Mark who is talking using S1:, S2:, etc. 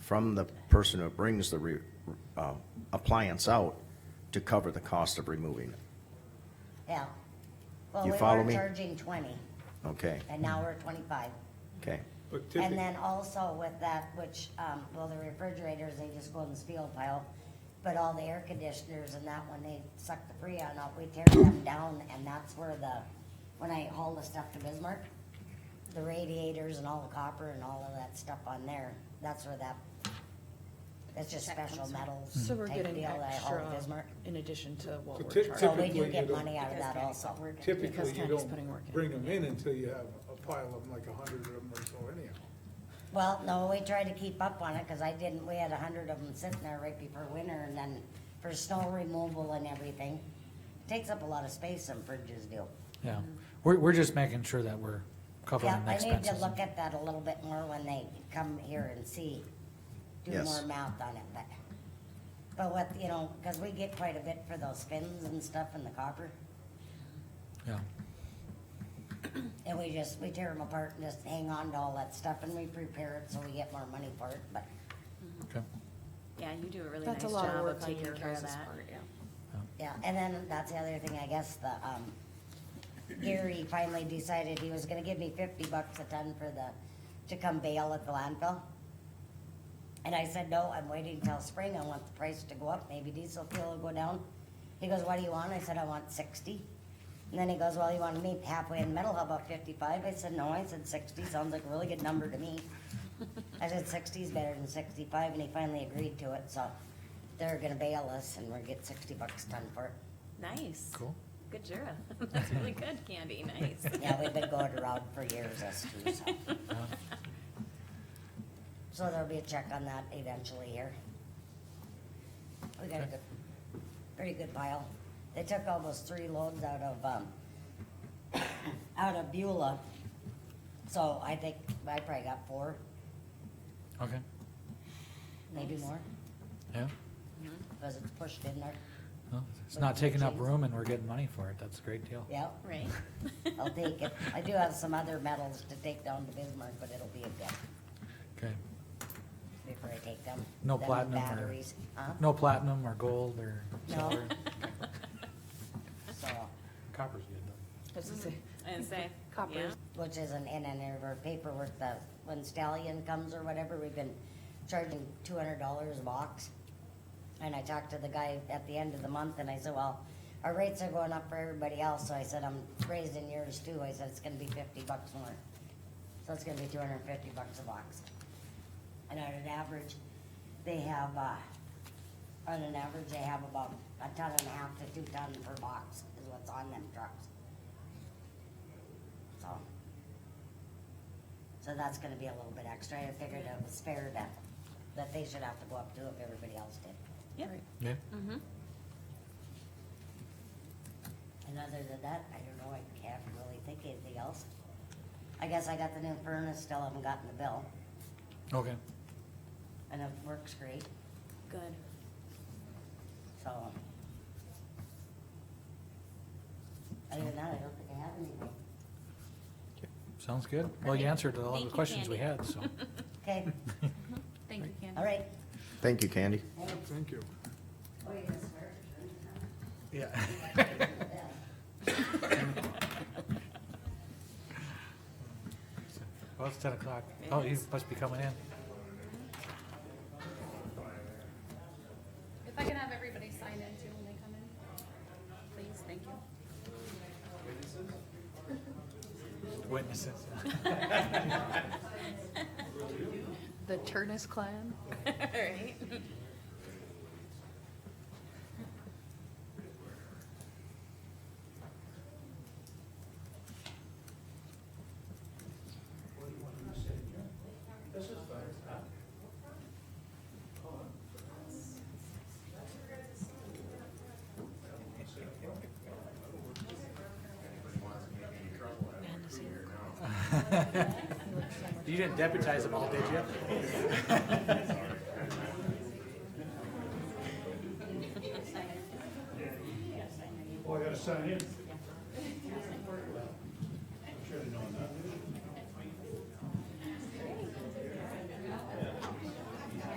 S1: from the person who brings the re, uh, appliance out to cover the cost of removing it,
S2: yeah. Well,
S1: You
S2: we
S1: follow
S2: were
S1: me?
S2: charging twenty,
S1: okay,
S2: and now we're twenty-five.
S1: okay,
S3: But
S2: And
S3: typically,
S2: then also with that, which, um, well, the refrigerators, they just go in the steel pile, but all the air conditioners and that, when they suck the freon out, we tear them down, and that's where the, when I haul the stuff to Bismarck, the radiators and all the copper and all of that stuff on there, that's where that, that's just
S4: That
S2: special
S4: comes from.
S2: metals
S4: So we're
S2: type
S4: getting
S2: deal that I haul
S4: extra
S2: to Bismarck.
S4: in addition to what
S3: So
S4: we're
S3: typ-
S2: So
S4: charging.
S2: we
S3: Typically,
S2: do
S3: you
S2: get
S3: don't-
S2: money out of that also.
S3: typically
S4: Because
S3: you
S4: Tanya's putting work
S3: don't
S4: in.
S3: bring them in until you have a pile of them, like a hundred of them or so anyhow.
S2: Well, no, we tried to keep up on it, cause I didn't, we had a hundred of them sitting there right before winter, and then for snow removal and everything. Takes up a lot of space, some fridges do.
S5: Yeah, we're, we're just making sure that we're
S2: Mm-hmm. Yeah,
S5: covering the
S2: I need
S5: Oh, expenses.
S2: to look at that a little bit more when they come here and see, do
S1: Yes.
S2: more math on it, but. But what, you know, cause we get quite a bit for those fins and stuff and the copper,
S5: Yeah,
S2: and we just, we tear them apart and just hang on to all that stuff, and we prepare it so we get more money for it, but.
S5: okay.
S6: Yeah, you do a really nice
S4: That's a lot of
S6: job
S4: work
S6: of
S4: on
S6: taking
S4: your
S6: care
S4: guys'
S6: of that.
S4: part, yeah.
S2: Yeah, and then that's the other thing, I guess, the, um, Gary finally decided he was gonna give me fifty bucks a ton for the, to come bail at the landfill. And I said, no, I'm waiting till spring, I want the price to go up, maybe diesel fuel will go down. He goes, what do you want? I said, I want sixty. And then he goes, well, you wanna meet halfway in the middle, how about fifty-five? I said, no, I said sixty, sounds like a really good number to me. I said sixty's better than sixty-five, and he finally agreed to it, so they're gonna bail us and we'll get sixty bucks a ton for it.
S6: Nice.
S5: Cool.
S6: Good Jura. That's really good, Candy. Nice.
S2: Yeah, we've been going around for years, us two, so. So there'll be a check on that eventually here. We got a good, pretty good pile. They took almost three loads out of, um, out of Beulah. So I think I probably got four,
S5: Okay,
S2: maybe more,
S5: yeah.
S2: because it's pushed in there.
S5: Well, It's
S2: Like
S5: not taking up
S2: jeans.
S5: room and we're getting money for it. That's a great deal.
S2: Yeah,
S6: Right.
S2: I'll take it. I do have some other metals to take down to Bismarck, but it'll be a bit.
S5: Okay.
S2: before I take them.
S5: No
S2: Then the
S5: platinum or-
S2: Batteries, huh?
S5: No platinum or gold or
S2: No.
S5: silver?
S2: So,
S5: Copper's good
S4: That's to say,
S6: And say.
S4: Copper.
S6: yeah.
S2: which isn't in any of our paperwork, that when Stallion comes or whatever, we've been charging two hundred dollars a box. And I talked to the guy at the end of the month and I said, well, our rates are going up for everybody else, so I said, I'm raising yours too, I said, it's gonna be fifty bucks more. So it's gonna be two hundred and fifty bucks a box. And on an average, they have, uh, on an average, they have about a ton and a half to two ton per box is what's on them trucks. So. So that's gonna be a little bit extra, I figured it was fair that, that they should have to go up too if everybody else did.
S6: Yep.
S4: right.
S5: Yeah,
S6: Mm-hmm.
S2: And other than that, I don't know, I can't really think of anything else. I guess I got the new furnace, still haven't gotten the bill,
S5: okay.
S2: and it works great,
S6: Good.
S2: so. Other than that, I don't think I have anything.
S5: Sounds good. Well, you
S6: Perfect.
S5: answered all the
S6: Thank you,
S5: questions we
S6: Candy.
S5: had, so.
S2: Okay,
S6: Mm-hmm. Thank you, Candy.
S2: all right.
S1: thank you, Candy.
S2: Thanks.
S3: Thank you.
S2: Oh, you just heard?
S5: Yeah.
S2: Yeah.
S5: Well, it's ten o'clock. Oh, you must be coming in.
S7: If I can have everybody sign in too when they come in, please, thank you.
S5: Witnesses.
S7: The Turnus clan?
S6: All right.
S5: You didn't deputize them all, did you?
S8: Oh, I gotta sign in.